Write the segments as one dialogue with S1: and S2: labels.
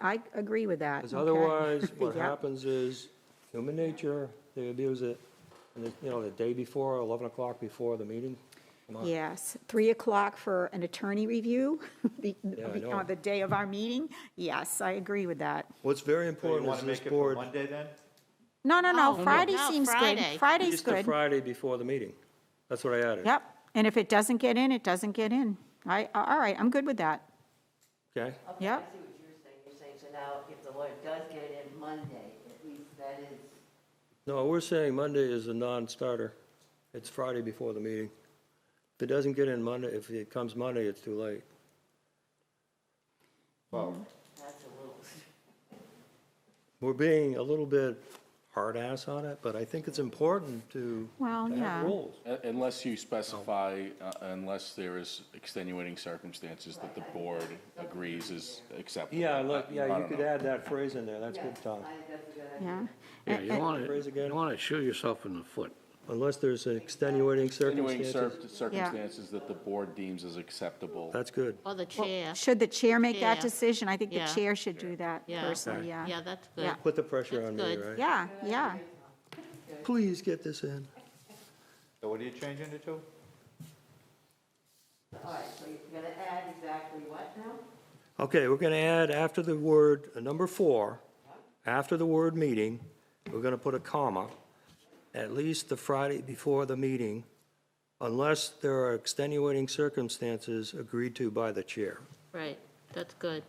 S1: I agree with that.
S2: Because
S1: okay.
S2: otherwise, what
S1: Yep.
S2: happens is, human nature, they abuse it, and, it- you know, the day before, 11 o'clock before the meeting. come on.
S1: Yes, 3 o'clock for an attorney review, the-
S2: I know.
S1: on the day of our meeting. Yes, I agree with that.
S2: What's very
S3: So you
S2: important
S3: want
S2: is
S3: to
S2: this
S3: make it for
S2: board,
S3: Monday then?
S1: No, no, no,
S4: No,
S1: Friday
S4: no,
S1: seems good.
S4: Friday.
S1: Friday's
S2: just the
S1: good.
S2: Friday before the meeting. That's what I added.
S1: Yep, and if it doesn't get in, it doesn't get in. I, all right, I'm good with that.
S2: Okay?
S5: Okay,
S1: Yep.
S5: I see what you're saying. You're saying, so now if the lawyer does get it in Monday, at least that is,
S2: No, we're saying Monday is a non-starter. It's Friday before the meeting. If it doesn't get in Monday, if it comes Monday, it's too late.
S5: that's a little,
S2: We're being a little bit hard-ass on it, but I think it's important to
S1: Well,
S2: to
S1: yeah.
S2: have rules.
S6: Uh, Unless you specify, uh, unless there is extenuating circumstances that the board agrees is acceptable.
S2: Yeah, look,
S6: I
S2: yeah, you
S6: don't
S2: could
S6: know.
S2: add that phrase in there, that's good, Tom.
S5: I think that's a good idea.
S1: Yeah.
S7: Yeah,
S4: Eh,
S7: you want
S2: Phrase
S7: to,
S2: again.
S7: you want to shoot yourself in the foot.
S2: Unless there's extenuating
S6: Extenuating
S2: circumstances.
S6: cir- circumstances that the board deems as acceptable.
S2: That's good.
S4: Or Oh, the chair.
S1: Should the chair make that
S4: Yeah.
S1: decision? I think the
S4: Yeah.
S1: chair should do that
S4: Yeah.
S1: personally, yeah.
S4: Yeah, that's
S1: Yeah.
S4: good.
S2: Put the pressure
S4: That's
S2: on me,
S4: good.
S2: right?
S1: Yeah, yeah.
S2: Please get this in.
S3: So what are you changing it to?
S5: All right, so you're gonna add exactly what now?
S2: Okay, we're going to add after the word, uh, number four, after the word meeting, we're going to put a comma, at least the Friday before the meeting, unless there are extenuating circumstances agreed to by the chair.
S4: Right, that's good.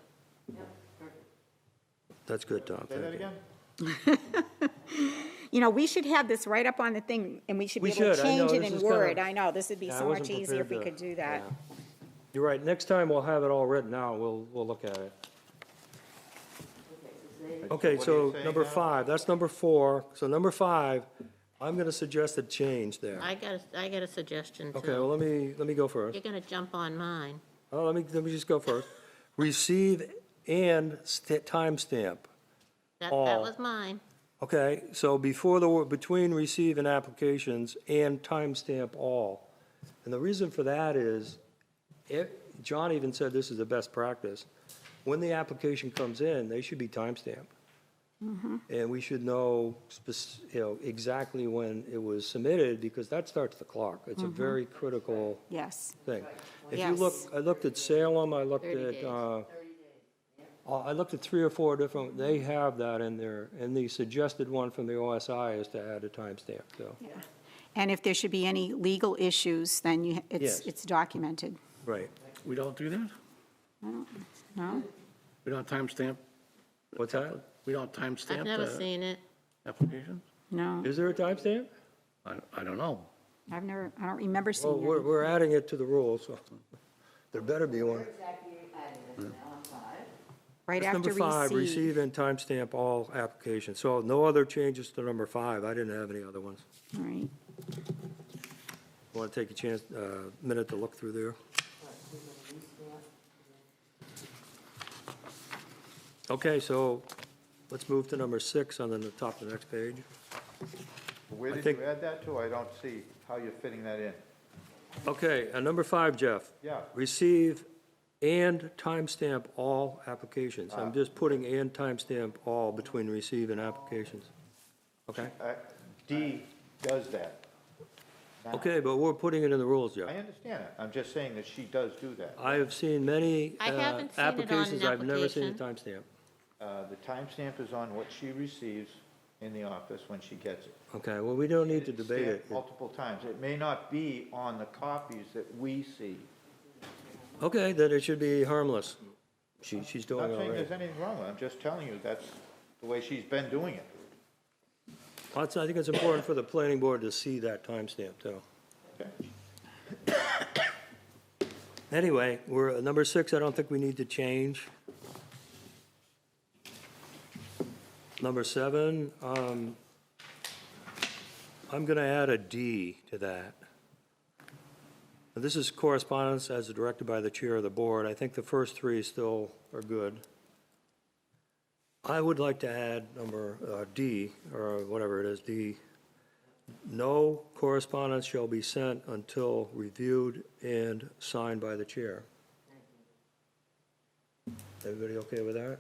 S2: That's good, Tom.
S3: Say
S2: Thank
S3: that
S2: you.
S3: again?
S1: You know, we should have this right up on the thing, and we should be
S2: We
S1: able to
S2: should, I know,
S1: change it
S2: this
S1: in
S2: is kinda-
S1: Word. I know, this would be
S2: Yeah, I
S1: so
S2: wasn't
S1: much easier if we
S2: prepared
S1: could
S2: to-
S1: do that.
S2: yeah. You're right, next time we'll have it all written out, we'll, we'll look at it. Okay,
S3: What are you
S2: so
S3: saying
S2: number
S3: now?
S2: five, that's number four. So number five, I'm going to suggest a change there.
S4: I got, a- I got a suggestion
S2: Okay,
S4: too.
S2: well, let me, let me go first.
S4: You're going to jump on mine.
S2: Oh, let me, let me just go first. Receive and st- timestamp.
S4: That,
S2: All.
S4: that was mine.
S2: Okay, so before the, word between receive and applications and timestamp all. And the reason for that is, if, John even said this is the best practice. When the application comes in, they should be timestamped. And we should know, spec- you know, exactly when it was submitted, because that starts the clock. It's a very critical
S1: Yes,
S2: thing. If you look,
S1: Yes.
S2: I looked at Salem, I looked
S4: 30
S2: at,
S4: days.
S2: uh, uh, I looked at three or four different, they have that in there, and the suggested one from the OSI is to add a timestamp, so.
S1: and if there should be any legal issues, then you, it's,
S2: Yes.
S1: it's documented,
S2: Right.
S7: We don't do that?
S1: no?
S7: We don't timestamp,
S2: What's that?
S7: we don't timestamp?
S4: I've never
S7: uh,
S4: seen it.
S7: Applications?
S1: No,
S2: Is there a timestamp?
S7: I, I don't know.
S1: I've never, I don't remember
S2: Well,
S1: seeing
S2: we're,
S1: it.
S2: we're adding it to the rules, so there better be one.
S5: Where exactly are you adding this now on five?
S1: Right
S2: That's
S1: after
S2: Number five,
S1: receive.
S2: receive and timestamp all applications. So no other changes to number five. I didn't have any other ones.
S1: All right,
S2: Want to take a chance, uh minute to look through there? Okay, so let's move to number six on the top of the next page.
S3: Where
S2: I
S3: did
S2: think-
S3: you add that to? I don't see how you're fitting that in.
S2: Okay, uh, number five, Jeff.
S3: Yeah.
S2: Receive and timestamp all applications. I'm just putting and timestamp all between receive and applications. Okay?
S3: Uh, D does that. Now,
S2: Okay, but we're putting it in the rules,
S3: I
S2: Jeff.
S3: understand it. I'm just saying that she does do that.
S2: I have seen many
S4: I
S2: uh,
S4: haven't seen it on an
S2: applications, I've never seen a timestamp.
S3: Uh, The timestamp is on what she receives in the office when she gets it.
S2: Okay, well, we don't need to
S3: It's
S2: debate
S3: stamped
S2: it.
S3: Multiple times. It may not be on the copies that we see.
S2: Okay, then it should be harmless. She, she's
S3: I'm
S2: doing
S3: not
S2: Oh, all
S3: saying
S2: right.
S3: there's anything wrong with it. I'm just telling you that's the way she's been doing it.
S2: Well, it's- I think it's important for the planning board to see that timestamp, too.
S3: Okay.
S2: Anyway, we're, at number six, I don't think we need to change. Number seven, um, I'm gonna add a D to that. This is correspondence as directed by the chair of the board. I think the first three still are good. I would like to add number, uh, D, or whatever it is, D. No correspondence shall be sent until reviewed and signed by the chair. Everybody okay with that?